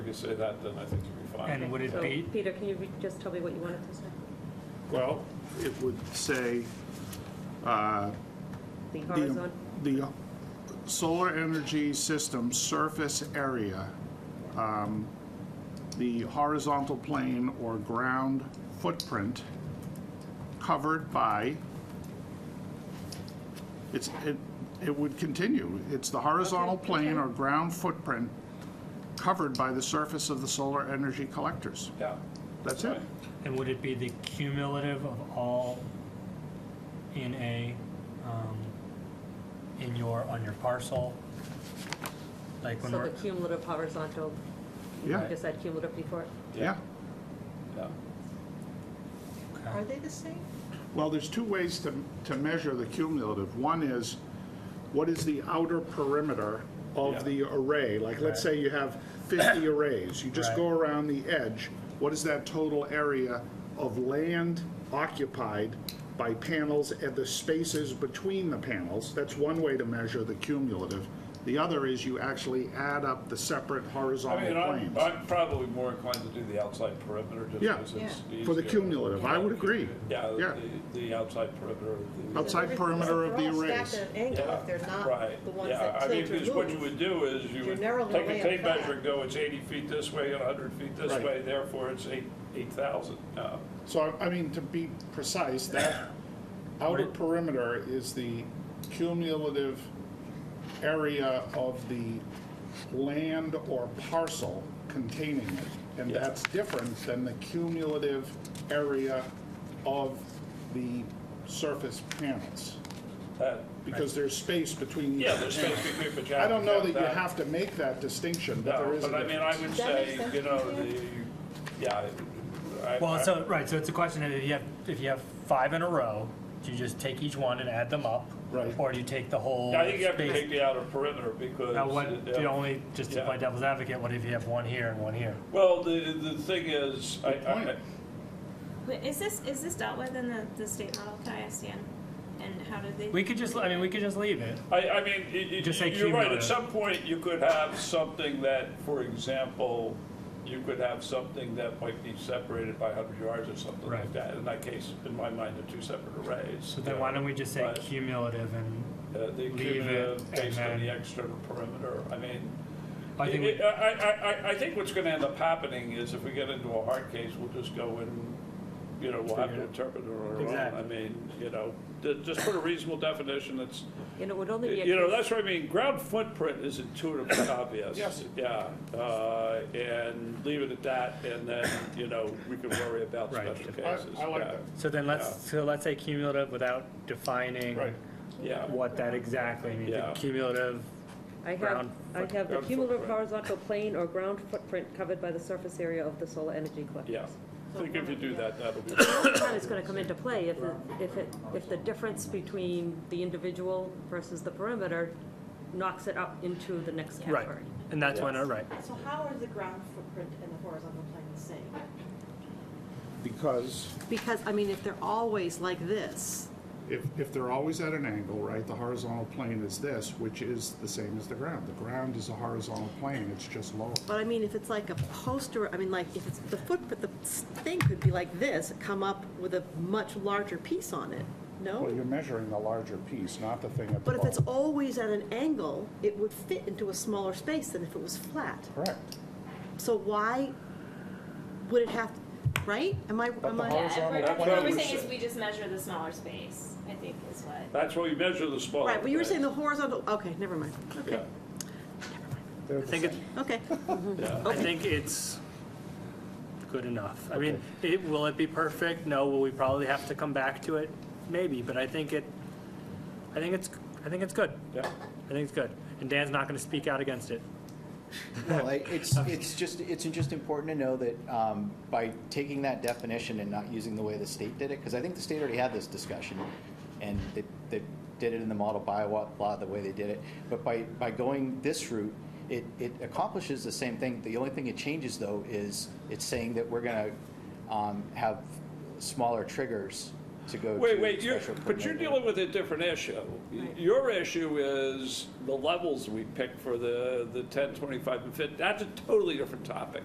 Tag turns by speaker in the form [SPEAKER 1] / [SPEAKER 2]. [SPEAKER 1] you say that, then I think you'll be fine.
[SPEAKER 2] And would it
[SPEAKER 3] So,
[SPEAKER 2] be-
[SPEAKER 3] Peter, can you re- just tell me what you wanted to say?
[SPEAKER 4] Well, it would say, uh,
[SPEAKER 3] The
[SPEAKER 4] the,
[SPEAKER 3] horizon,
[SPEAKER 4] the solar energy system surface area, um, the horizontal plane or ground footprint covered by, it's, it, it would continue. It's the horizontal
[SPEAKER 3] Okay,
[SPEAKER 4] plane
[SPEAKER 3] okay.
[SPEAKER 4] or ground footprint covered by the surface of the solar energy collectors.
[SPEAKER 1] Yeah.
[SPEAKER 4] That's it.
[SPEAKER 1] Right.
[SPEAKER 2] And would it be the cumulative of all in a, um, in your, on your parcel? Like when
[SPEAKER 3] so the
[SPEAKER 2] we're,
[SPEAKER 3] cumulative horizontal, you
[SPEAKER 4] Yeah,
[SPEAKER 3] just said cumulative before?
[SPEAKER 4] yeah.
[SPEAKER 1] Yeah.
[SPEAKER 5] Are they the same?
[SPEAKER 4] Well, there's two ways to, to measure the cumulative. One is, what is the outer perimeter
[SPEAKER 1] Yeah.
[SPEAKER 4] of the array? Like, let's say you have 50 arrays, you just
[SPEAKER 2] Right.
[SPEAKER 4] go around the edge, what is that total area of land occupied by panels and the spaces between the panels? That's one way to measure the cumulative. The other is you actually add up the separate
[SPEAKER 1] I
[SPEAKER 4] horizontal
[SPEAKER 1] mean, I'm,
[SPEAKER 4] planes.
[SPEAKER 1] I'm probably more inclined to do the outside perimeter just
[SPEAKER 4] Yeah,
[SPEAKER 1] because it's easier.
[SPEAKER 4] for the cumulative, I would agree.
[SPEAKER 1] Yeah,
[SPEAKER 4] Yeah.
[SPEAKER 1] the, the outside perimeter of the.
[SPEAKER 4] Outside perimeter of the arrays.
[SPEAKER 5] They're all stacked at an angle if they're not
[SPEAKER 1] Right.
[SPEAKER 5] the ones
[SPEAKER 1] Yeah,
[SPEAKER 5] that
[SPEAKER 1] I mean,
[SPEAKER 5] tilt or
[SPEAKER 1] because what you
[SPEAKER 5] move.
[SPEAKER 1] would do is you
[SPEAKER 5] You're
[SPEAKER 1] would
[SPEAKER 5] narrowing
[SPEAKER 1] take
[SPEAKER 5] the
[SPEAKER 1] a
[SPEAKER 5] way
[SPEAKER 1] tape
[SPEAKER 5] in half.
[SPEAKER 1] measure and go, it's 80 feet this way, 100 feet this
[SPEAKER 4] Right.
[SPEAKER 1] way, therefore it's eight 8,000. Uh,
[SPEAKER 4] So, I I mean, to be precise, that outer
[SPEAKER 2] Right.
[SPEAKER 4] perimeter is the cumulative area of the land or parcel containing it. And
[SPEAKER 1] Yeah.
[SPEAKER 4] that's different than the cumulative area of the surface panels,
[SPEAKER 1] that-
[SPEAKER 4] because there's space between. each
[SPEAKER 1] Yeah, there's
[SPEAKER 4] panel.
[SPEAKER 1] space between, but you
[SPEAKER 4] I don't know that you
[SPEAKER 1] that.
[SPEAKER 4] have to make that distinction, but there
[SPEAKER 1] No,
[SPEAKER 4] is a
[SPEAKER 1] but I mean, I
[SPEAKER 4] difference.
[SPEAKER 1] would
[SPEAKER 5] Does that make
[SPEAKER 1] say,
[SPEAKER 5] sense
[SPEAKER 1] you know,
[SPEAKER 5] to
[SPEAKER 1] the, yeah. I- I-
[SPEAKER 2] well, so, right, so it's a question of if you have, if you have five in a row, do you just take each one and add them up?
[SPEAKER 4] Right.
[SPEAKER 2] Or do you take the whole?
[SPEAKER 1] I think you have to
[SPEAKER 2] space?
[SPEAKER 1] take the outer perimeter because.
[SPEAKER 2] Now, what,
[SPEAKER 1] yeah.
[SPEAKER 2] the only, just to
[SPEAKER 1] Yeah.
[SPEAKER 2] play devil's advocate, what if you have one here and one here?
[SPEAKER 1] Well, the, the thing is, I,
[SPEAKER 4] Good
[SPEAKER 1] I,
[SPEAKER 4] point.
[SPEAKER 6] Wait, is this is this dealt with in the, the state model? Can I ask Ian? And how do they?
[SPEAKER 2] We could just, I mean, we could just leave it.
[SPEAKER 1] I, I mean, y- y-
[SPEAKER 2] Just say
[SPEAKER 1] you're right, at
[SPEAKER 2] cumulative.
[SPEAKER 1] some point, you could have something that, for example, you could have something that might be separated by hundred yards or something like
[SPEAKER 2] Right.
[SPEAKER 1] that. In that case, in my mind, they're two separate arrays.
[SPEAKER 2] So then why don't we just say
[SPEAKER 1] But,
[SPEAKER 2] cumulative and,
[SPEAKER 1] uh, The
[SPEAKER 2] leave it
[SPEAKER 1] cumulative
[SPEAKER 2] and
[SPEAKER 1] based on the
[SPEAKER 2] then-
[SPEAKER 1] external perimeter, I mean,
[SPEAKER 2] I think we,
[SPEAKER 1] I, I, I, I think what's gonna end up happening is if we get into a hard case, we'll just go and, you know, we'll have to
[SPEAKER 2] Figure it.
[SPEAKER 1] interpret it on our own. I
[SPEAKER 2] Exactly.
[SPEAKER 1] mean, you know, ju- just put a reasonable definition that's,
[SPEAKER 3] And it would only be a
[SPEAKER 1] you know,
[SPEAKER 3] case,
[SPEAKER 1] that's what I mean, ground footprint is intuitively obvious.
[SPEAKER 4] Yes.
[SPEAKER 1] Yeah, uh, and leave it at that, and then, you know, we can worry about
[SPEAKER 2] Right.
[SPEAKER 1] special
[SPEAKER 4] I-
[SPEAKER 1] cases.
[SPEAKER 4] I like
[SPEAKER 1] Yeah.
[SPEAKER 4] that.
[SPEAKER 2] so then let's, so let's say cumulative without defining
[SPEAKER 4] Right.
[SPEAKER 1] Yeah,
[SPEAKER 2] what that exactly means.
[SPEAKER 1] Yeah.
[SPEAKER 2] Cumulative,
[SPEAKER 3] I have,
[SPEAKER 2] ground
[SPEAKER 3] I have the
[SPEAKER 1] ground
[SPEAKER 3] cumulative
[SPEAKER 1] footprint.
[SPEAKER 3] horizontal plane or ground footprint covered by the surface area of the solar energy collectors.
[SPEAKER 1] yeah, I think if you do that, that'll be.
[SPEAKER 3] How it's gonna come into play if, it- if it, if the difference between the individual versus the perimeter knocks it up into the next
[SPEAKER 2] right,
[SPEAKER 3] category.
[SPEAKER 2] and that's when, uh, right,
[SPEAKER 5] So how are the ground footprint and the horizontal plane the same?
[SPEAKER 4] Because
[SPEAKER 5] Because, I mean, if they're always like this,
[SPEAKER 4] If, if they're always at an angle, right, the horizontal plane is this, which is the same as the ground. The ground is a horizontal plane, it's just lower.
[SPEAKER 5] but I mean, if it's like a poster, I mean, like, if it's, the footprint, the s- thing could be like this, come up with a much larger piece on it,
[SPEAKER 4] Well,
[SPEAKER 5] no?
[SPEAKER 4] you're measuring the larger piece, not the thing at the
[SPEAKER 5] Oh. But if it's
[SPEAKER 4] bottom.
[SPEAKER 5] always at an angle, it would fit into a smaller space than if it was flat.
[SPEAKER 4] Correct.
[SPEAKER 5] So why would it have, right? Am I,
[SPEAKER 4] But
[SPEAKER 5] am
[SPEAKER 4] the
[SPEAKER 5] I?
[SPEAKER 4] hor-
[SPEAKER 6] yeah,
[SPEAKER 4] horizontal
[SPEAKER 6] we're-
[SPEAKER 1] plane
[SPEAKER 6] what we're
[SPEAKER 1] is-
[SPEAKER 6] saying is we just measure the smaller space. I think is what.
[SPEAKER 1] That's why you measure the smaller.
[SPEAKER 5] Right, but you were
[SPEAKER 1] things.
[SPEAKER 5] saying the horizontal, okay, never mind, okay,
[SPEAKER 1] Yeah.
[SPEAKER 4] They're
[SPEAKER 2] I
[SPEAKER 4] the
[SPEAKER 2] think it's,
[SPEAKER 5] okay.
[SPEAKER 2] I think it's good enough. I mean, it, will it be perfect? No, will we probably have to come back to it? Maybe, but I think it, I think it's, I think it's good.
[SPEAKER 5] Mm-hmm.
[SPEAKER 1] Yeah.
[SPEAKER 2] I think it's good, and Dan's not gonna speak out against it.
[SPEAKER 7] Well, I- it's, it's just, it's just important to know that um, by taking that definition and not using the way the state did it, because I think the state already had this discussion, and they, they did it in the model bylaw, law, the way they did it. But by, by going this route, it, it accomplishes the same thing. The only thing it changes, though, is it's saying that we're going to have smaller triggers to go to
[SPEAKER 1] Wait, wait, you're,
[SPEAKER 7] special
[SPEAKER 1] but you're
[SPEAKER 7] permit.
[SPEAKER 1] dealing with a different issue. Your issue is the levels we pick for the, the 10, 25, and 50. That's a totally different topic.